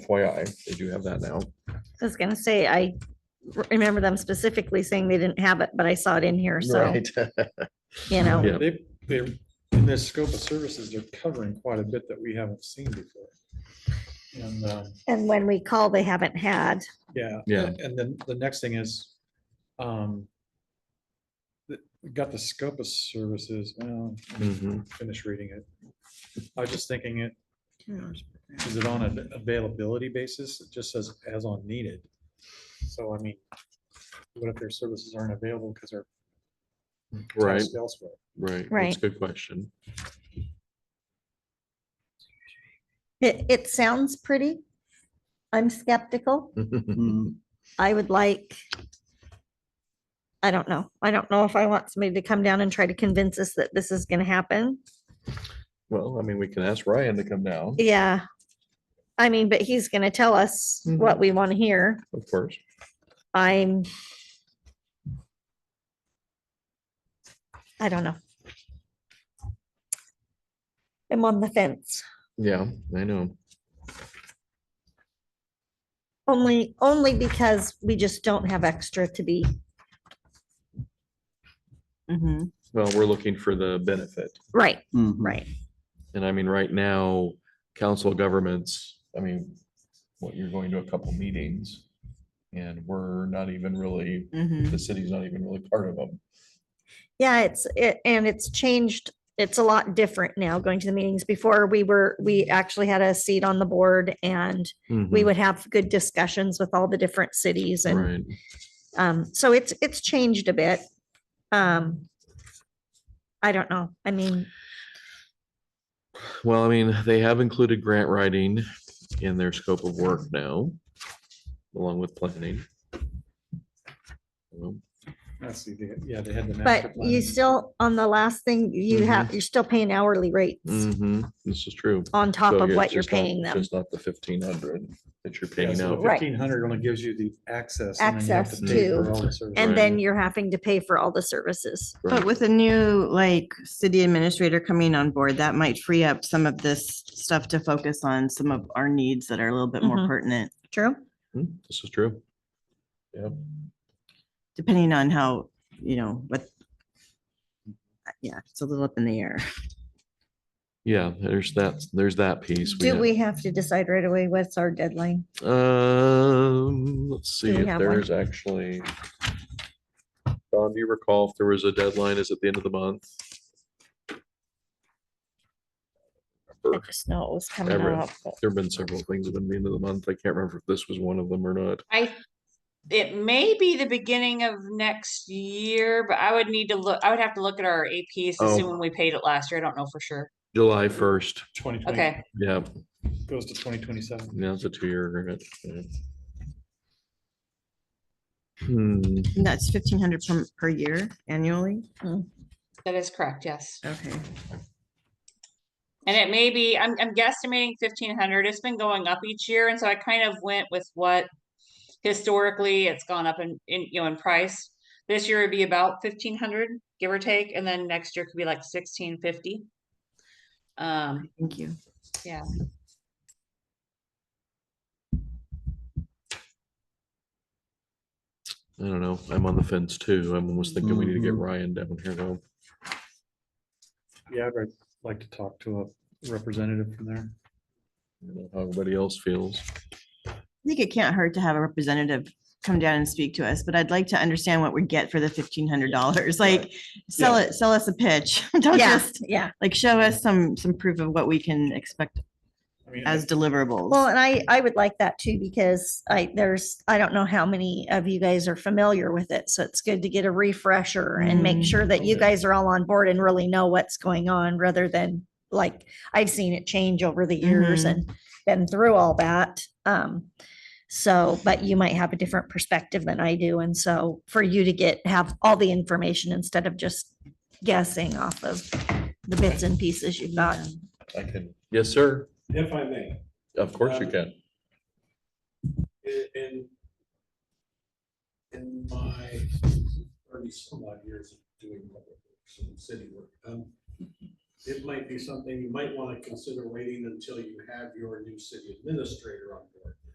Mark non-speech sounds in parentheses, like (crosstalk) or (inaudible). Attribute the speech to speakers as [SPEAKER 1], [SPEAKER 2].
[SPEAKER 1] FYI, they do have that now.
[SPEAKER 2] I was gonna say, I r- remember them specifically saying they didn't have it, but I saw it in here, so,
[SPEAKER 1] Right.
[SPEAKER 2] you know,
[SPEAKER 1] Yeah.
[SPEAKER 3] They, they're, in their scope of services, they're covering quite a bit that we haven't seen before. And, um,
[SPEAKER 2] and when we call, they haven't had.
[SPEAKER 3] yeah.
[SPEAKER 1] Yeah.
[SPEAKER 3] and- And then the next thing is, um, the- we got the scope of services, well,
[SPEAKER 1] Mhm.
[SPEAKER 3] finish reading it. I was just thinking it, is it on an availability basis? It just says as on needed. So I mean, what if their services aren't available because they're
[SPEAKER 1] Right,
[SPEAKER 3] tasked elsewhere?
[SPEAKER 1] right. That's
[SPEAKER 2] Right.
[SPEAKER 1] a good question. (laughs)
[SPEAKER 2] It, it sounds pretty. I'm skeptical. Mm-hmm. I would like. I don't know. I don't know if I want somebody to come down and try to convince us that this is gonna happen.
[SPEAKER 1] Well, I mean, we can ask Ryan to come down,
[SPEAKER 2] Yeah. I mean, but he's gonna tell us
[SPEAKER 1] Mm-hmm.
[SPEAKER 2] what we want to hear.
[SPEAKER 1] of course.
[SPEAKER 2] I'm. I don't know. I'm on the fence.
[SPEAKER 1] Yeah, I know.
[SPEAKER 2] Only, only because we just don't have extra to be,
[SPEAKER 4] Mhm.
[SPEAKER 1] Well, we're looking for the benefit.
[SPEAKER 2] right,
[SPEAKER 1] Mm-hmm.
[SPEAKER 2] right.
[SPEAKER 1] And I mean, right now, council governments, I mean, what, you're going to a couple meetings and we're not even really,
[SPEAKER 4] Mhm.
[SPEAKER 2] Mm-hmm.
[SPEAKER 1] the city's not even really part of them.
[SPEAKER 2] Yeah, it's, it, and it's changed. It's a lot different now going to the meetings. Before we were, we actually had a seat on the board and we would have good discussions with all the different cities and
[SPEAKER 1] Mm-hmm. Right,
[SPEAKER 2] Um, so it's, it's changed a bit. Um, I don't know. I mean,
[SPEAKER 1] well, I mean, they have included grant writing in their scope of work now, along with planning. Well,
[SPEAKER 3] I see, they- yeah, they had the. master
[SPEAKER 2] but you
[SPEAKER 3] plan.
[SPEAKER 2] still, on the last thing, you have, you're still paying hourly rates
[SPEAKER 1] mhm, This is true.
[SPEAKER 2] on top
[SPEAKER 1] So
[SPEAKER 2] of
[SPEAKER 1] yeah,
[SPEAKER 2] what
[SPEAKER 1] it's
[SPEAKER 2] you're
[SPEAKER 1] just not-
[SPEAKER 2] paying them.
[SPEAKER 1] It's not the fifteen hundred that you're
[SPEAKER 3] Yeah,
[SPEAKER 1] paying
[SPEAKER 3] so
[SPEAKER 1] out.
[SPEAKER 2] Right.
[SPEAKER 3] Fifteen hundred only gives you the access. and then you have
[SPEAKER 2] Access
[SPEAKER 3] pay for
[SPEAKER 2] to-
[SPEAKER 3] all the services.
[SPEAKER 2] And then you're having to pay for all the services.
[SPEAKER 4] But with a new, like, city administrator coming on board, that might free up some of this stuff to focus on some of our needs that are a little bit more
[SPEAKER 2] Mhm.
[SPEAKER 4] pertinent,
[SPEAKER 2] True.
[SPEAKER 1] Hmm, This is true. Yeah,
[SPEAKER 4] depending on how, you know, what. Yeah, it's a little up in the air.
[SPEAKER 1] yeah, there's that, there's that piece.
[SPEAKER 2] Do
[SPEAKER 1] had-
[SPEAKER 2] we have to decide right away what's our deadline?
[SPEAKER 1] Um, let's see
[SPEAKER 2] we
[SPEAKER 1] if
[SPEAKER 2] have one?
[SPEAKER 1] there's actually. Don, do you recall if there was a deadline? Is it the end of the month?
[SPEAKER 2] I
[SPEAKER 1] Remember,
[SPEAKER 2] just know it was coming
[SPEAKER 1] Everett.
[SPEAKER 2] up. but-
[SPEAKER 1] There've been several things that have been the end of the month. I can't remember if this was one of them or not.
[SPEAKER 5] I, it may be the beginning of next year, but I would need to look, I would have to look at our APs to see
[SPEAKER 1] Oh.
[SPEAKER 5] when we paid it last year. I don't know for sure.
[SPEAKER 1] July first,
[SPEAKER 3] Twenty twenty,
[SPEAKER 5] Okay,
[SPEAKER 1] yeah,
[SPEAKER 3] goes to twenty twenty-seven.
[SPEAKER 1] now it's a two-year agreement. yeah. Hmm,
[SPEAKER 4] And that's fifteen hundred per, per year annually.
[SPEAKER 5] that is correct, yes.
[SPEAKER 4] Okay.
[SPEAKER 5] And it may be, I'm, I'm guesstimating fifteen hundred. It's been going up each year, and so I kind of went with what historically it's gone up in, in, you know, in price. This year would be about fifteen hundred, give or take, and then next year could be like sixteen fifty. Um,
[SPEAKER 4] Thank you.
[SPEAKER 5] Yeah.
[SPEAKER 1] I don't know, I'm on the fence too. I'm almost thinking we need to get
[SPEAKER 3] Mhm.
[SPEAKER 1] Ryan down here though.
[SPEAKER 3] Yeah, I'd like to talk to a representative from there.
[SPEAKER 1] I don't know How everybody else feels.
[SPEAKER 4] I think it can't hurt to have a representative come down and speak to us, but I'd like to understand what we get for the fifteen hundred dollars. Like, sell it, sell us a pitch. (laughs) Don't
[SPEAKER 2] Yeah,
[SPEAKER 4] just,
[SPEAKER 2] yeah.
[SPEAKER 4] like, show us some, some proof of what we can expect
[SPEAKER 3] I mean,
[SPEAKER 4] as
[SPEAKER 3] I-
[SPEAKER 2] Well,
[SPEAKER 4] deliverables.
[SPEAKER 2] and I, I would like that too, because I, there's, I don't know how many of you guys are familiar with it, so it's good to get a refresher and make
[SPEAKER 4] Mm.
[SPEAKER 2] sure that you
[SPEAKER 1] Okay.
[SPEAKER 2] guys are all on board and really know what's going on, rather than, like, I've seen it change over the years
[SPEAKER 4] Mhm.
[SPEAKER 2] and been through all that. Um, so, but you might have a different perspective than I do, and so for you to get, have all the information instead of just guessing off of the bits and pieces you've got.
[SPEAKER 1] I can. Yes, sir.
[SPEAKER 6] If I may,
[SPEAKER 1] Of course you
[SPEAKER 6] Um,
[SPEAKER 1] can.
[SPEAKER 6] in- in, in my thirty some odd years of doing public works and city work, um, it might be something you might want to consider waiting until you have your new city administrator on board.